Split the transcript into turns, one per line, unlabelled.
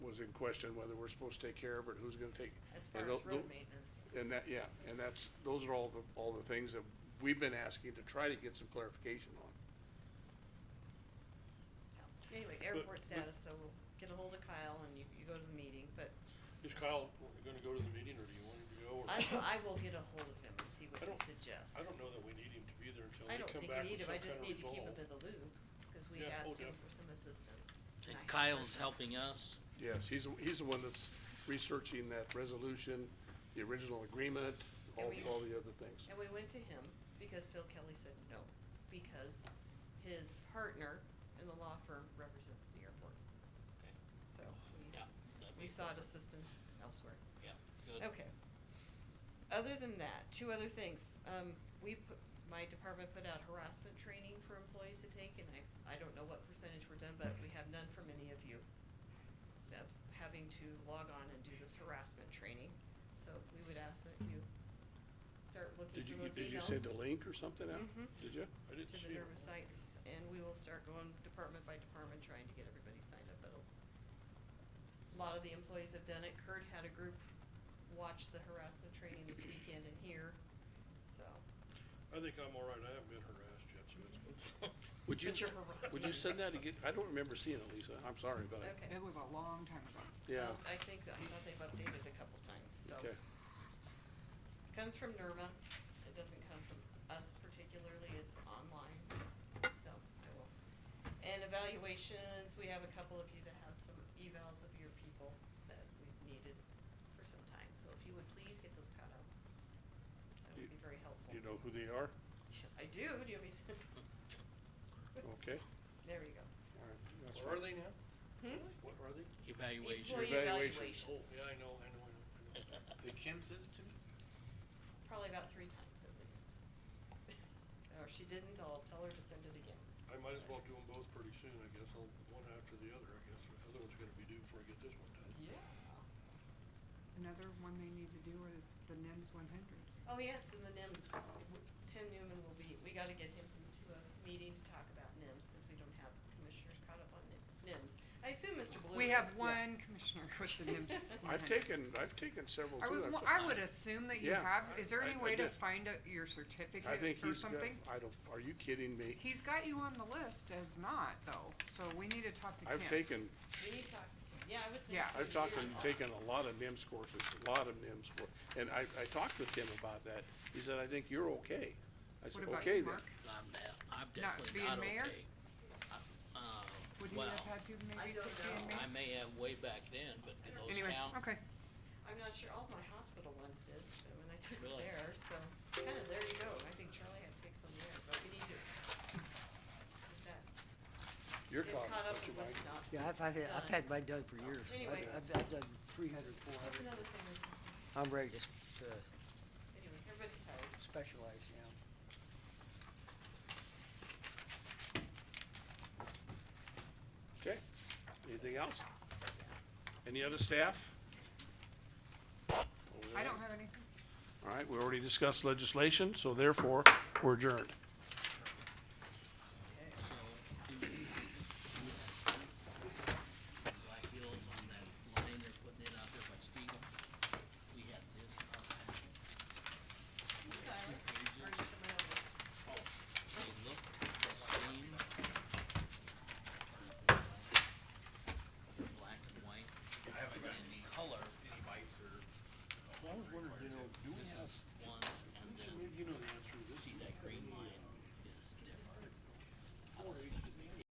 was in question, whether we're supposed to take care of it, who's gonna take.
as far
and
as
tho- tho-
road maintenance.
And that, yeah, and that's, those are all the, all the things that we've been asking to try to get some clarification on.
So, Anyway,
but-
airport status, so we'll get a hold of Kyle and you, you go to the meeting, but
Is Kyle w- gonna go to the meeting, or do you want him to go, or?
I, will- I will get a hold of him and see what he
I don't-
suggests.
I don't know that we need him to be there until
I
they
don't
come
think
back
you need
with
him, I
some kind of
just
resolve.
need to keep him in the loop, cause we
Yeah, oh,
asked him
def-
for some assistance.
And
I-
Kyle's helping us.
Yes, he's, the- he's the one that's researching that resolution, the original agreement, all,
And we-
all the other things.
And we went to him because Phil Kelly said no, because his partner in the law firm represents the airport. So we,
Yeah, that'd
we
be
sought
perfect.
assistance elsewhere.
Yeah, good.
Okay. Other than that, two other things. Um, we put, my department put out harassment training for employees to take, and I, I don't know what percentage were done, but we have none from any of you. That having to log on and do this harassment training, so we would ask that you start looking
Did you,
for those emails.
did you send a link or something out?
Mhm.
Did you?
I didn't
To
see
the
him.
nervous sites, and we will start going department by department, trying to get everybody signed up, but a lot of the employees have done it, Kurt had a group watch the harassment training this weekend in here, so.
I think I'm all right, I haven't been harassed yet, so it's good.
Would you,
But you're harassing.
would you send that again? I don't remember seeing it, Lisa. I'm sorry, but I,
Okay.
It was a long time ago.
yeah,
Um, I think, I thought they've updated a couple times, so.
okay.
Comes from NERMA, it doesn't come from us particularly, it's online, so I will. And evaluations, we have a couple of you that have some evals of your people that we've needed for some time, so if you would please get those caught up. That
You-
would be very helpful.
You know who they are?
I do, do you want me to?
Okay.
There you go.
All right, that's
What are
fine.
they now?
Hmm?
What are they?
Evaluation.
Employee
evaluation.
Oh,
evaluations,
yeah, I know, I know, I know, I know.
Did Kim send it to me?
probably about three times at least. Or if she didn't, I'll tell her to send it again.
I might as well do them both pretty soon, I guess, I'll, one after the other, I guess, or the other one's gonna be due before I get this one done.
Yeah.
Another one they need to do is the NIMS one hundred.
Oh, yes, and the NIMS, Tim Newman will be, we gotta get him to a meeting to talk about NIMS, cause we don't have commissioners caught up on Ni- NIMS. I assume Mr. Blue
We have
is.
one commissioner with the NIMS one
I've
hundred.
taken, I've taken several too.
Mm-hmm. I was,
I've
wa-
ta-
I would assume that you
Yeah,
have, is there
I-
any
I
way to
did.
find out
I
your
think
certificate or
he's got,
something?
I don't, are you kidding me?
He's got you on the list as not though, so we need to talk to Tim.
I've taken,
We need to talk to Tim, yeah, I would think.
Yeah.
he
I've
would
talked
do
and
that.
taken a lot of NIMS courses, a lot of NIMS cour- and I, I talked with Tim about that. He said, I think you're okay. I
What
said,
about
okay
you,
then.
Mark?
I'm, de- I'm definitely
being
not okay.
mayor?
I- Uh,
Would you
well,
have had to
I
maybe
don't
take being
know.
mayor?
I may have way back then, but do those
Anyway,
count?
okay.
I'm not sure, all my hospital ones did, so when I took it
Really?
there, so, kinda there you go, I think Charlie had to take some there, but we need to. get that-
You're
get
caught,
caught up
aren't you,
with
Mike?
what's not.
Yeah, I've, I've, had- I've
Done.
had mine done for
So,
years. I've-
anyway.
I've, I've done three hundred, four
That's
hundred.
another thing, that's-
I'm ready to s- to
anyway, everybody's tired.
specialize now.
Okay, anything else? Any other staff?
I don't have anything.
All right, we already discussed legislation, so therefore, we're adjourned.
uh,